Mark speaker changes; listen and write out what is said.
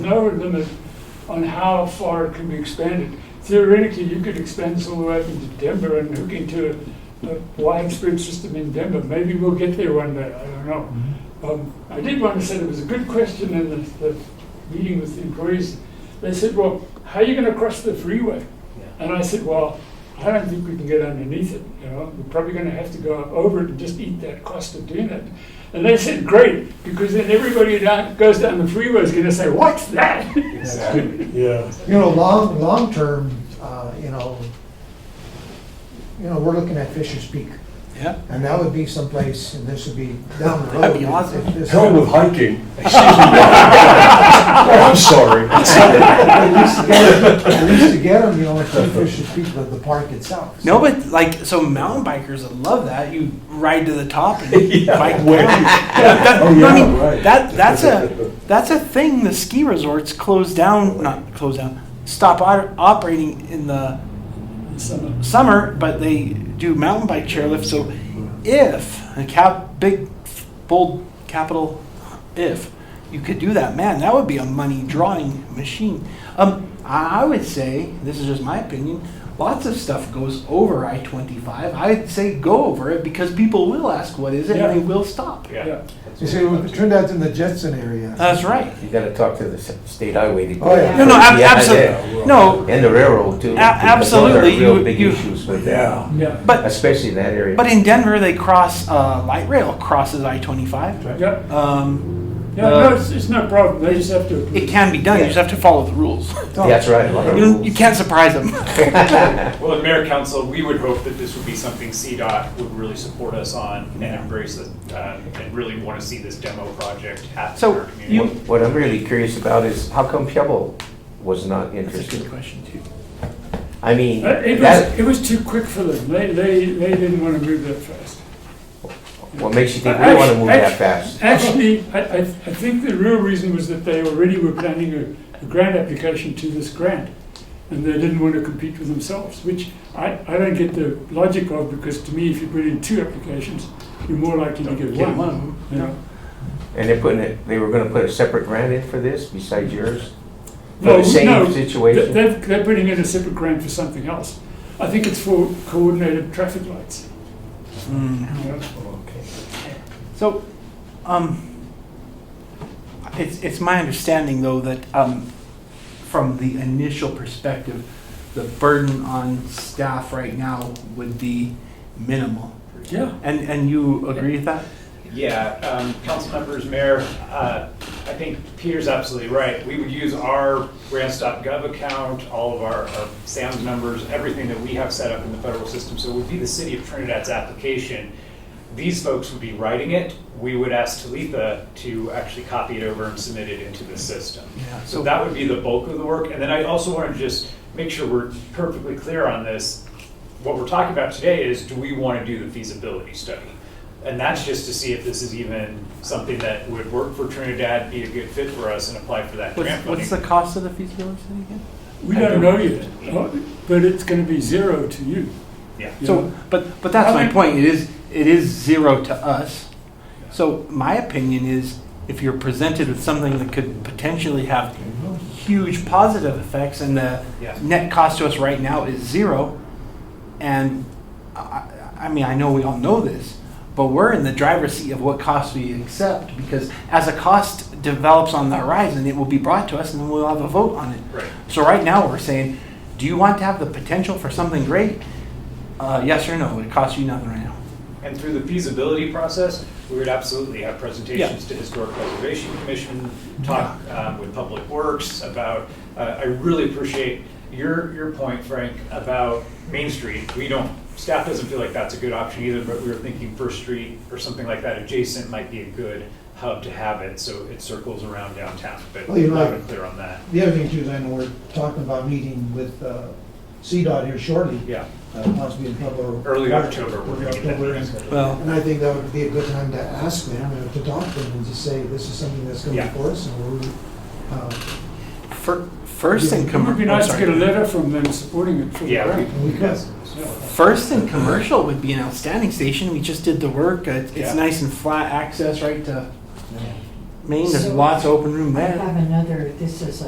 Speaker 1: no limit on how far it can be expanded. Theoretically, you could expand this all the way up into Denver and hook into a- a widespread system in Denver. Maybe we'll get there one day, I don't know.
Speaker 2: Mm-hmm.
Speaker 1: Um, I did want to say, it was a good question in the, the meeting with the employees. They said, well, how are you gonna cross the freeway? And I said, well, I don't think we can get underneath it, you know, we're probably gonna have to go up over it and just eat that cost of doing it. And they said, great, because then everybody that goes down the freeway is gonna say, what's that?
Speaker 3: Exactly.
Speaker 4: Yeah,
Speaker 2: You know, long, long-term, uh, you know, you know, we're looking at Fisher's Peak.
Speaker 5: Yeah.
Speaker 2: And that would be someplace, and this would be down the road.
Speaker 5: That'd be awesome.
Speaker 2: If this-
Speaker 4: hell with hiking. Excuse me. Oh, I'm sorry.
Speaker 2: At least to get 'em- at least to get them, you know, it's in Fisher's Peak, but the park itself.
Speaker 5: No, but like so, mountain bikers would love that. You ride to the top and bike down.
Speaker 4: Where?
Speaker 5: That-
Speaker 4: Oh,
Speaker 5: no, I
Speaker 4: yeah,
Speaker 5: mean,
Speaker 4: right.
Speaker 5: that that's a that's a thing. The ski resorts close down, not close down, stop o- operating in the
Speaker 1: So,
Speaker 5: summer, but they do mountain bike chairlift. So, if a cap big bold capital if you could do that, man, that would be a money drawing machine. Um, I I would say this is just my opinion. Lots of stuff goes over I twenty five. I'd say go over it because people will ask what is it
Speaker 1: Yeah.
Speaker 5: and they will stop.
Speaker 1: yeah.
Speaker 2: You see, it turned out in the Jetson area.
Speaker 5: That's right.
Speaker 3: You gotta talk to the s- state highway
Speaker 2: Oh, yeah.
Speaker 3: department.
Speaker 5: No, no, ab-
Speaker 3: Yeah,
Speaker 5: absolutely. No,
Speaker 3: yeah. And the railroad too.
Speaker 5: A-
Speaker 3: because those are
Speaker 5: absolutely, you-
Speaker 3: Real big
Speaker 5: you-
Speaker 3: issues with
Speaker 4: Yeah.
Speaker 3: that,
Speaker 1: Yeah,
Speaker 5: but
Speaker 3: especially in that area.
Speaker 5: but in Denver they cross uh, light rail crosses I twenty five.
Speaker 1: yeah,
Speaker 5: Um,
Speaker 1: yeah, no, it's, it's no problem, they just have to.
Speaker 5: it can be done. You just have to follow the rules.
Speaker 2: Oh.
Speaker 3: That's right. a lot of
Speaker 5: You, don't- you
Speaker 3: rules.
Speaker 5: can't surprise them.
Speaker 6: Well, and Mayor Council, we would hope that this would be something CDOT would really support us on and embrace it, um, and really want to see this demo project happen in
Speaker 5: So
Speaker 6: our
Speaker 5: you,
Speaker 6: community.
Speaker 3: What- What I'm really curious about is how come Pebble was not
Speaker 5: That's a good
Speaker 3: interested?
Speaker 5: question too.
Speaker 3: I mean,
Speaker 1: Uh, It
Speaker 3: that,
Speaker 1: was, it was too quick for them, they, they, they didn't want to move that fast.
Speaker 3: what makes you think we wanna move that fast?
Speaker 1: Actually, I, I, I think the real reason was that they already were planning a, a grant application to this grant. And they didn't want to compete with themselves, which I, I don't get the logic of, because to me, if you put in two applications, you're more likely to get
Speaker 5: Get
Speaker 1: one.
Speaker 5: one.
Speaker 1: you know.
Speaker 3: And they're putting it, they were gonna put a separate grant in for this besides yours? For
Speaker 1: Well,
Speaker 3: the same
Speaker 1: no, They-
Speaker 3: situation?
Speaker 1: They're, they're putting in a separate grant for something else. I think it's for coordinated traffic lights.
Speaker 5: Mm.
Speaker 1: you know.
Speaker 5: So, um, it's, it's my understanding though that, um, from the initial perspective, the burden on staff right now would be minimal.
Speaker 1: Yeah.
Speaker 5: And, and you agree with that?
Speaker 6: Yeah, um, council members, mayor, uh, I think Peter's absolutely right. We would use our grants.gov account, all of our, our SAM's numbers, everything that we have set up in the federal system. So it would be the city of Trinidad's application. These folks would be writing it. We would ask Talitha to actually copy it over and submit it into the system.
Speaker 5: Yeah.
Speaker 6: So that would be the bulk of the work. And then I also want to just make sure we're perfectly clear on this. What we're talking about today is, do we want to do the feasibility study? And that's just to see if this is even something that would work for Trinidad, be a good fit for us, and apply for that grant
Speaker 5: What's, what's the
Speaker 6: funding.
Speaker 5: cost of the feasibility study again?
Speaker 1: We don't know yet, uh, but it's gonna be zero to you.
Speaker 6: Yeah.
Speaker 1: you know.
Speaker 5: So, but, but that's
Speaker 1: I
Speaker 5: my
Speaker 1: mean-
Speaker 5: point, it is, it is zero to us. So my opinion is, if you're presented with something that could potentially have huge positive effects and the
Speaker 6: Mm-hmm. Yeah.
Speaker 5: net cost to us right now is zero, and I, I- I mean, I know we all know this, but we're in the driver's seat of what costs we accept, because as a cost develops on the horizon, it will be brought to us and then we'll have a vote on it.
Speaker 6: Right.
Speaker 5: So right now, we're saying, do you want to have the potential for something great? Uh, yes or no, it costs you nothing right now.
Speaker 6: And through the feasibility process, we would absolutely have presentations to Historic Preservation Commission, talk um, with Public Works about, uh, I really appreciate your, your point, Frank, about Main Street. We don't, staff doesn't feel like that's a good option either, but we were thinking First Street or something like that adjacent might be a good hub to have it, so it circles around downtown, but
Speaker 2: Well, you're
Speaker 6: not
Speaker 2: right.
Speaker 6: clear on that.
Speaker 2: The other thing too, is I know we're talking about meeting with uh, CDOT here shortly.
Speaker 6: Yeah,
Speaker 2: Uh, Possibly in Pueblo.
Speaker 6: Early October, we're
Speaker 2: Early
Speaker 6: gonna get
Speaker 2: October.
Speaker 6: that.
Speaker 5: Well,
Speaker 2: And I think that would be a good time to ask them, and to talk to them, and just say, this is something that's coming
Speaker 6: Yeah.
Speaker 2: for us, and we're, uh,
Speaker 5: fir- first in
Speaker 1: It would be
Speaker 5: commercial,
Speaker 1: nice to get a letter from them supporting it for the
Speaker 6: Yeah.
Speaker 1: grant.
Speaker 2: and we could.
Speaker 5: first in commercial would be an outstanding station. We just did the work. It, it's
Speaker 6: Yeah.
Speaker 5: nice and flat access right to Maine, there's
Speaker 7: So-
Speaker 5: lots of open room
Speaker 7: I
Speaker 5: there.
Speaker 7: have another, this is a